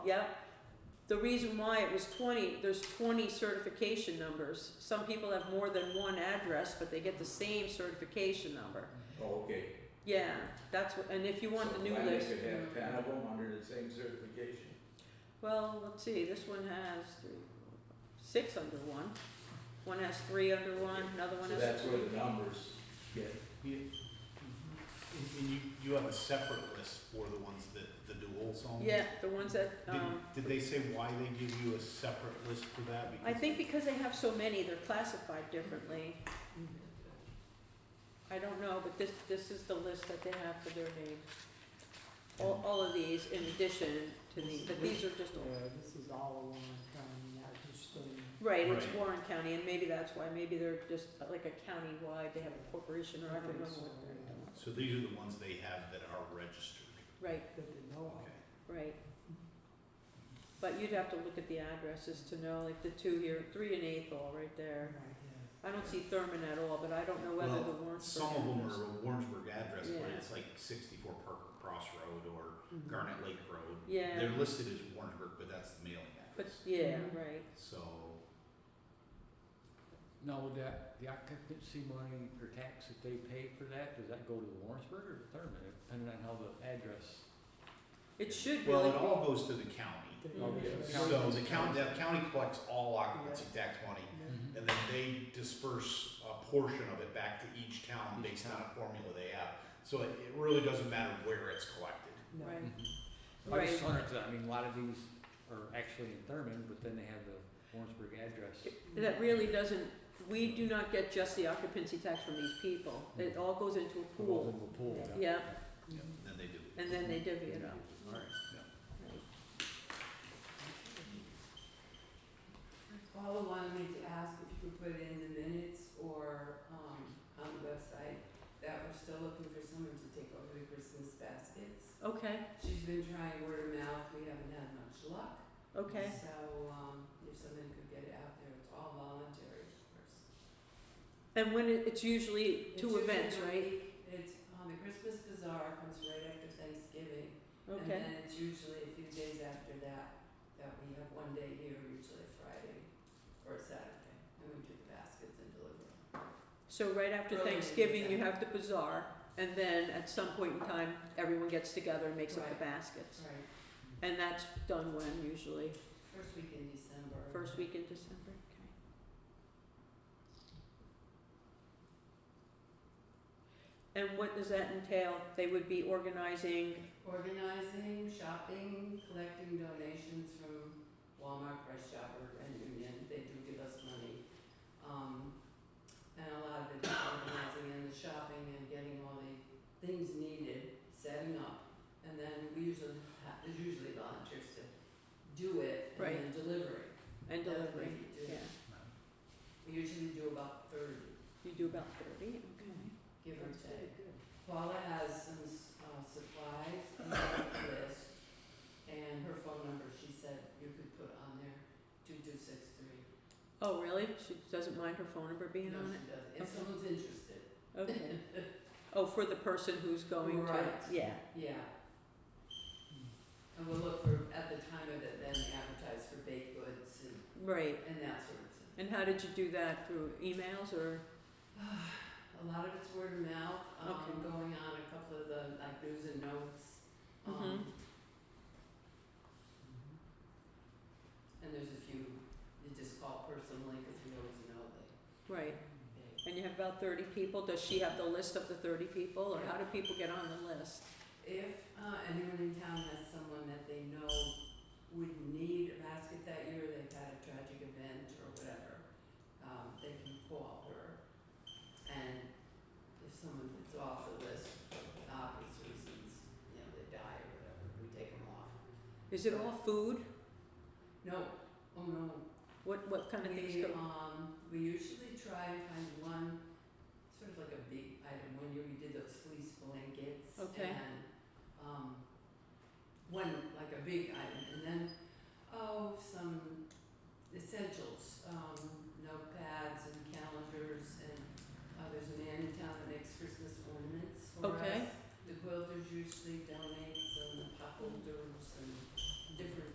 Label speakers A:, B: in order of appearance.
A: Yep. The reason why it was twenty, there's twenty certification numbers. Some people have more than one address, but they get the same certification number.
B: Oh, okay.
A: Yeah, that's what, and if you want the new
B: So
A: list.
B: I could have ten of them under the same certification.
A: Well, let's see, this one has three, four, five, six under one. One has three under one, another one
B: So
A: has.
B: that's where the numbers get,
C: Yeah. And, and you, you have a separate list for the ones that, the duals own?
A: Yeah, the ones that,
C: Did,
A: um,
C: did they say why they give you a separate list for that?
A: I
C: Because-
A: think because they have so many, they're classified differently. I don't know, but this, this is the list that they have for their names. All, all of these in addition to the, but these are just, all-
D: Yeah, this is all Warren County, not just the.
A: right, it's
C: Right.
A: Warren County, and maybe that's why, maybe they're just like a county-wide, they have a corporation or I don't know what they're doing.
C: So these are the ones they have that are registered,
A: Right,
D: That they
A: Oh,
D: know
C: okay.
D: of.
A: right. But you'd have to look at the addresses to know, like the two here, three and Athol right there.
D: Right, yeah.
A: I don't see Thurman at all, but I don't know whether
C: Well,
A: the Warrensburg.
C: Some of them
A: address-
C: are a Warrensburg address, but
A: Yeah.
C: it's like sixty-four Parker Cross Road or
D: Mhm.
C: Garnet Lake Road.
A: Mm-hmm. Yeah.
C: They're listed as Warrensburg, but that's the mailing
A: But,
C: address,
A: yeah,
D: Mhm.
A: right.
C: so.
E: No, that, the occupancy money or tax that they pay for that, does that go to Lawrenceburg or to Thurman, depending on how the address?
A: It should
C: Well,
A: really
C: it
A: be.
C: all goes to the county,
D: They-
A: Oh, yeah.
D: they-
C: so the county, the county collects all occupancy tax money,
D: Yeah.
C: And then they disperse a portion of it back to each town
E: Each
C: based on
E: town.
C: a formula they have. So it, it really doesn't matter where it's collected.
D: No.
A: Right.
E: I just
A: Right.
E: wondered, 'cause I mean, a lot of these are actually in Thurman, but then they have the Lawrenceburg address.
A: That really doesn't, we do not get just the occupancy tax from these people. It all goes into a pool.
E: Multiple pool.
A: Yeah,
D: Mhm.
C: And then they do.
A: and then they divvy it up.
C: Alright,
F: Paula wanted me to ask if you could put it in the minutes or, um, on the website, that we're still looking for someone to take over the Christmas baskets.
A: Okay,
F: She's been trying word of mouth, we haven't had much luck.
A: okay.
F: So, um, if someone could get it out there, it's all voluntary, of course.
A: And when it, it's usually
F: It's
A: two
F: usually
A: events,
F: the
A: right?
F: week- It's, um, the Christmas bazaar comes right after Thanksgiving. And
A: Okay,
F: then it's usually a few days after that, that we have one day here, usually Friday or Saturday, and we do the baskets and deliver.
A: so right after
F: Early in the
A: Thanksgiving, you
F: December.
A: have the bazaar, and then at some point in time, everyone gets together and makes up the
F: Right.
A: baskets.
F: Right,
A: And that's done when usually?
F: first week in December.
A: First week in December, okay. And what does that entail? They would be organizing,
F: Organizing, shopping, collecting donations from Walmart, Price Chopper, and Union, they do give us money. Um, and a lot of it is organizing and the shopping and getting all the things needed, setting up. And then we usually have, there's usually volunteers to do it
A: Right.
F: and then delivery.
A: and
F: That's what
A: delivering,
F: you do.
A: yeah.
F: We usually do about thirty,
A: You do about thirty, okay.
F: give or
D: That's really
F: take.
D: good.
F: Paula has some s- uh, supplies and a list, and her phone number, she said you could put on there, two two six three.
A: Oh, really? She doesn't mind her phone number being on
F: No, she doesn't, if
A: Okay.
F: someone's interested,
A: it? Okay. Oh, for the person who's going to,
F: Right.
A: yeah,
F: yeah.
A: Hmm.
F: And we'll look for, at the time of it, then advertise for baked goods and,
A: right.
F: and that sort of thing.
A: And how did you do that? Through emails or,
F: A lot of it's word of mouth, um,
A: Okay.
F: going on a couple of the, like, news and notes,
A: Mm-hmm.
F: um,
D: Mhm.
F: and there's a few, you just call personally, cause we always know they,
A: right,
F: they
A: and you have about thirty people? Does she have the list of the thirty people or how do people get on the list?
F: If uh, anyone in town has someone that they know would need a basket that year, they've had a tragic event or whatever, um, they can call her. And if someone that's off the list for obvious reasons, you know, they die or whatever, we take them off.
A: Is it all food?
F: No, oh no,
A: What, what kind of things
F: we,
A: go?
F: um, we usually try and find one, sort of like a big item, one year we did those fleece blankets
A: Okay.
F: and, um, one, like a big item, and then, oh, some essentials, um, notepads and calendars and, uh, there's a man in town that makes Christmas ornaments for us.
A: Okay.
F: The quilters usually donate some, the pop holders and different